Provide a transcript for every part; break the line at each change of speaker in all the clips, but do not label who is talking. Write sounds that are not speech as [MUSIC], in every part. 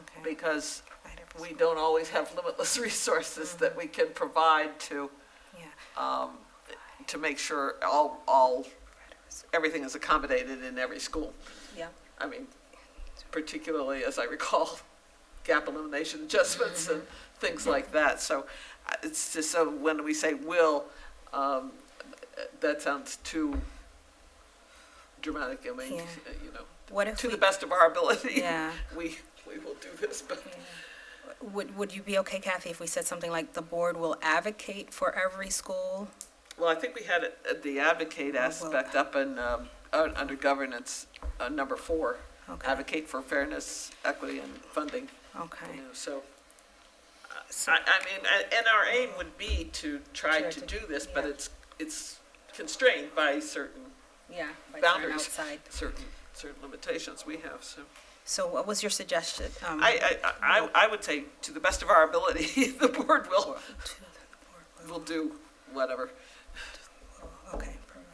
Okay.
because
Right up
we
his-
don't always have limitless [LAUGHS] resources that we can provide to,
Yeah.
um, to make sure all, all,
right up his-
everything is accommodated in every school.
Yeah.
I mean, particularly as I recall, [LAUGHS] gap elimination adjustments and
Mm-hmm.
things like that. So uh, it's just, so when we say will, um, that sounds too dramatic. I mean,
Yeah.
you know,
What if
to
we,
the best of our ability,
Yeah.
[LAUGHS] we, we will do this, but
would, would you be okay, Kathy, if we said something like, "The board will advocate for every school"?
Well, I think we had it- uh, the advocate aspect up in, um, un- under governance, uh, number four.
Okay.
Advocate for fairness, equity, and funding, you
Okay.
know, so. I, I mean, a- and our aim would be to try
Sure,
to
to-
do this, but
yeah.
it's, it's constrained by certain,
Yeah. by turn
Boundaries.
Outside.
certain, certain limitations we have, so.
So what was your suggestion? Um,
I, I, I, I would say, to the best of our ability, [LAUGHS] the board will,
to the board will-
will do whatever.
will- Okay. provide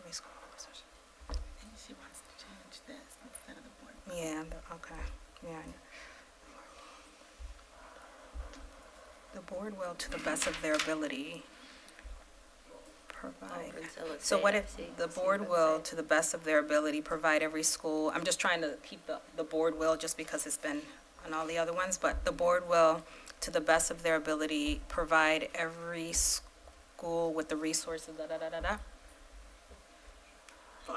every school resource.
think she wants to change this instead of the board.
Yeah, the- okay, yeah. I know. The board will, to the best of their ability, provide. Oh, So what if the board will, to the best of their ability, provide every school, I'm just trying to keep the, the board will, just because it's been on all the other ones, but the board will, to the best of their ability, provide every school with the resources, da-da-da-da-da?
Fine.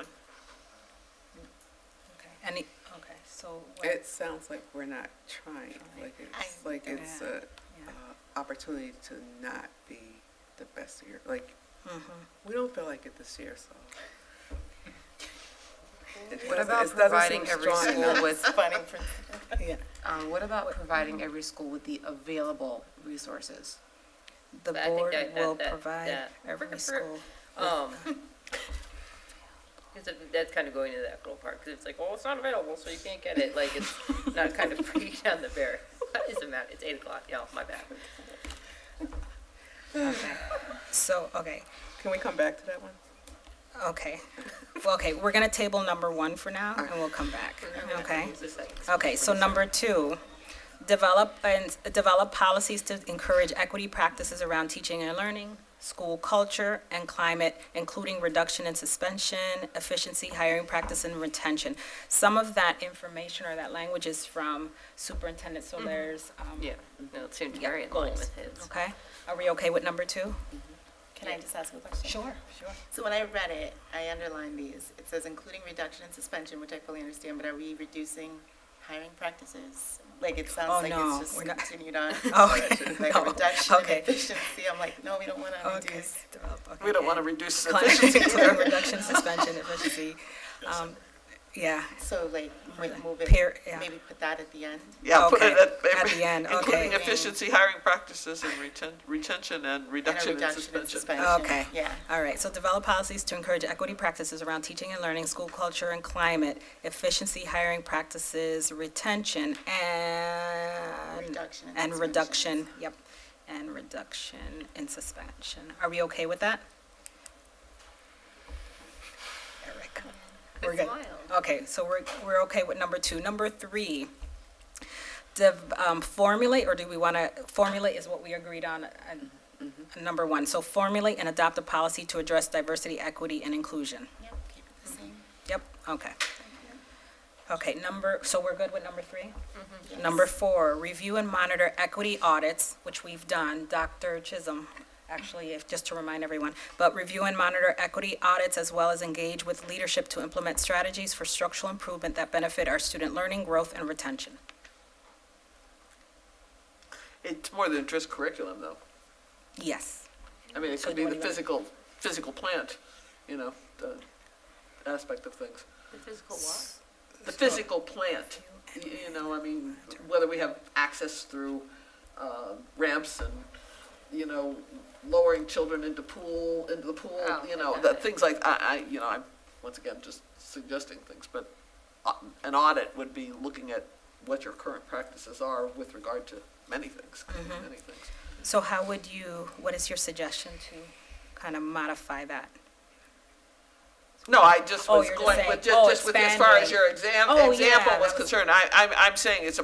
Okay. Any, eh, okay, so. what-
It sounds like we're not trying, like it's, like it's a,
Yeah.
uh, opportunity to not be the best year, like,
Mhm.
Mm-hmm.
we don't feel like it this year,
[LAUGHS]
so. It
What
doesn't-
about
it doesn't
providing
seem
every
strong
school
enough.
with,
Funny for [LAUGHS]
um, what about providing every school with the available resources?
The
But I think
board
that- that-
will
that-
provide
that-
every school.
Um, 'cause it- that's kind of going into that little part, because it's like, well, it's not available, so you can't get it, like, it's not kind of bringing [LAUGHS] down the bear. What is the matter? It's eight o'clock, yeah, my bad.
So, okay,
Can we come back to that one?
okay. Well, okay, we're gonna table number one for now, and we'll come back, okay?
It's just like-
Okay, so number two, develop and develop policies to encourage equity practices around teaching and learning, school culture and climate, including reduction and suspension, efficiency, hiring practice, and retention. Some of that information or that language is from Superintendent Solaire's, um,
Yeah, no, it's soon
Yeah,
Gary and
goals.
Lynn with his.
okay? Are we okay with number two?
Can I just ask a question?
sure.
So when I read it, I underlined these. It says including reduction and suspension, which I fully understand, but are we reducing hiring practices? Like, it
Oh,
sounds like
no,
it's
we're not-
just continued on.
Okay,
Like
no,
a reduction in
okay.
efficiency. I'm like, no, we don't want to
Okay.
reduce.
We don't want to reduce efficiency.
Climate, [LAUGHS] reduction, suspension, efficiency. Um, Yeah,
So like, mo- move
Peer-
it,
yeah.
maybe put that at the end?
Yeah, put it
Okay,
at.
at
[LAUGHS]
the end, okay.
Including efficiency, hiring practices, and reten, retention and
And a
reduction in
reduction in
suspension.
suspension.
Okay.
Yeah.
all right, so develop policies to encourage equity practices around teaching and learning, school culture and climate, efficiency, hiring practices, retention, and,
Reduction in
and
suspension.
reduction, yep, and reduction in suspension. Are we okay with that? Eric? We're good. Okay, so we're, we're okay with number two. Number three, dev- um, formulate, or do we want to, formulate is what we agreed on, uh,
Mm-hmm.
number one. So formulate and adopt a policy to address diversity, equity, and inclusion.
Yep, keep it the same.
Yep, okay. Okay, number, so we're good with number three? Number four, review and monitor equity audits, which we've done, Dr. Chisholm, actually, if, just to remind everyone. But review and monitor equity audits as well as engage with leadership to implement strategies for structural improvement that benefit our student learning, growth, and retention.
It's more than just curriculum, though.
Yes,
I mean, it
So
could
do
be
you
the
want to go-
physical, physical plant, you know, the aspect of things.
The physical what?
The physical plant, y- you know, I mean, whether we have access through uh, ramps and, you know, lowering children into pool, into the pool,
Oh,
you know,
okay.
the things like, I, I, you know, I'm, once again, just suggesting things, but uh, an audit would be looking at what your current practices are with regard to many things,
Mm-hmm.
many things.
so how would you, what is your suggestion to kind of modify that?
No, I just
Oh,
was
you're just
going
saying-
with,
oh,
just, just with as far as
expanding.
your exam,
Oh, yeah,
example
that
was
was-
concerned, I, I'm, I'm saying it's a